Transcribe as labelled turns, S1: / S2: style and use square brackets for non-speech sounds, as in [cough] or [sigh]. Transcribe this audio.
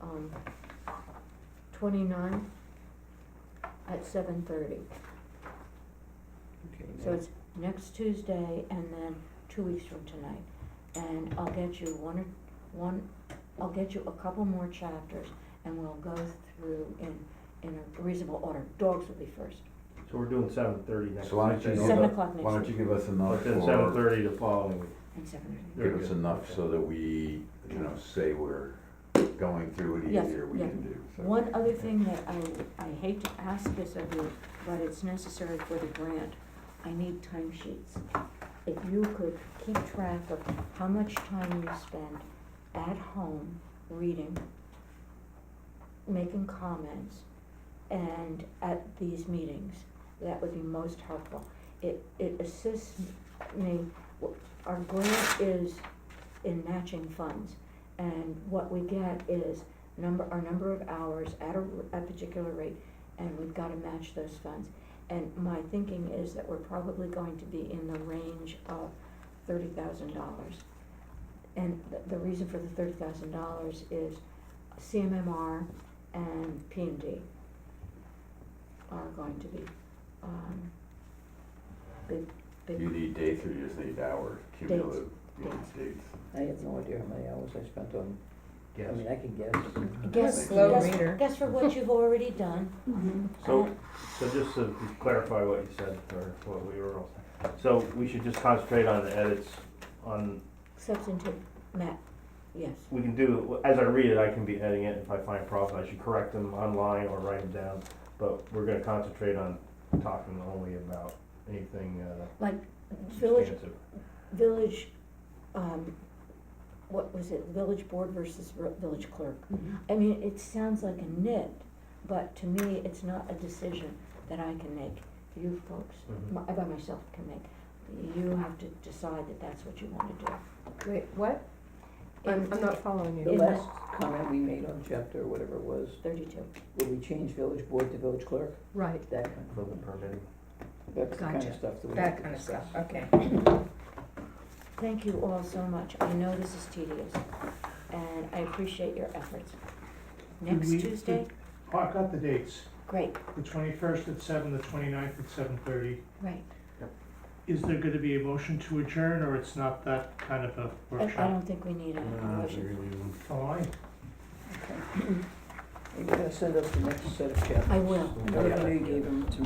S1: um, twenty-nine at seven thirty.
S2: Okay,
S1: So
S2: now-
S1: it's next Tuesday and then two weeks from tonight. And I'll get you one, or one, I'll get you a couple more chapters and we'll go through in, in a reasonable order. Dogs will be first,
S2: So we're doing seven thirty next.
S3: So why don't you
S2: Tuesday,
S3: give
S1: Seven
S3: us,
S1: o'clock
S3: why
S1: next
S3: don't you give us enough
S2: But then seven
S3: for,
S2: thirty the following week.
S1: and seven thirty.
S2: Very
S3: give us
S2: good.
S3: enough so that we, you know, say we're going through it
S1: Yes,
S3: easier, we
S1: yeah.
S3: can do, so.
S1: One other thing that I, I hate to ask this of you, but it's necessary for the grant, I need timesheets. If you could keep track of how much time you spend at home reading, making comments, and at these meetings, that would be most helpful. It, it assists me, our grant is in matching funds, and what we get is number, our number of hours at a, r- a particular rate, and we've gotta match those funds. And my thinking is that we're probably going to be in the range of thirty thousand dollars. And th- the reason for the thirty thousand dollars is CMMR and P and D are going to be, um, big, big.
S3: You need dates or you just need hours, cumulative, you need dates.
S4: I have no idea how many hours I spent on, I
S2: Yes.
S4: mean, I can guess.
S1: Guess,
S3: Slow
S1: guess,
S5: reader.
S1: guess for what you've already done.
S2: So, so just to clarify what you said, or what we were, all- so we should just concentrate on the edits, on,
S1: Substantive, Matt, yes.
S2: we can do, as I read it, I can be editing it, if I find problems, I should correct them online or write them down, but we're gonna concentrate on talking only about anything, uh,
S1: Like village,
S2: substantive.
S1: village, um, what was it, village board versus r- village clerk?
S5: Mm-hmm.
S1: I mean, it sounds like a nit, but to me, it's not a decision that I can make, you folks,
S2: Mhm.
S1: my- I by myself can make. You have to decide that that's what you wanna do.
S5: Wait, what? I'm,
S1: In
S5: I'm not following
S4: The
S5: you.
S1: In the-
S4: last comment we made on chapter, or whatever it was,
S1: Thirty-two,
S4: would we change village board to village clerk?
S5: Right,
S4: That kind,
S2: For the permitting.
S4: that's the kind
S5: Gotcha.
S4: of stuff that we have
S5: that
S4: to
S5: kind of
S4: discuss.
S5: stuff, okay.
S1: [clears throat] thank you all so much, I know this is tedious, and I appreciate your efforts. Next
S6: we-
S1: Tuesday,
S6: Oh, I've got the dates,
S1: great,
S6: the twenty-first at seven, the 29th at seven thirty.
S1: right,
S6: Is there gonna be a motion to adjourn, or it's not that kind of a
S1: I, I
S6: workshop?
S1: don't think we need a a motion.
S6: Oh, I,
S4: Are you gonna send us the next set of chapters?
S1: I will.
S4: I know you gave them to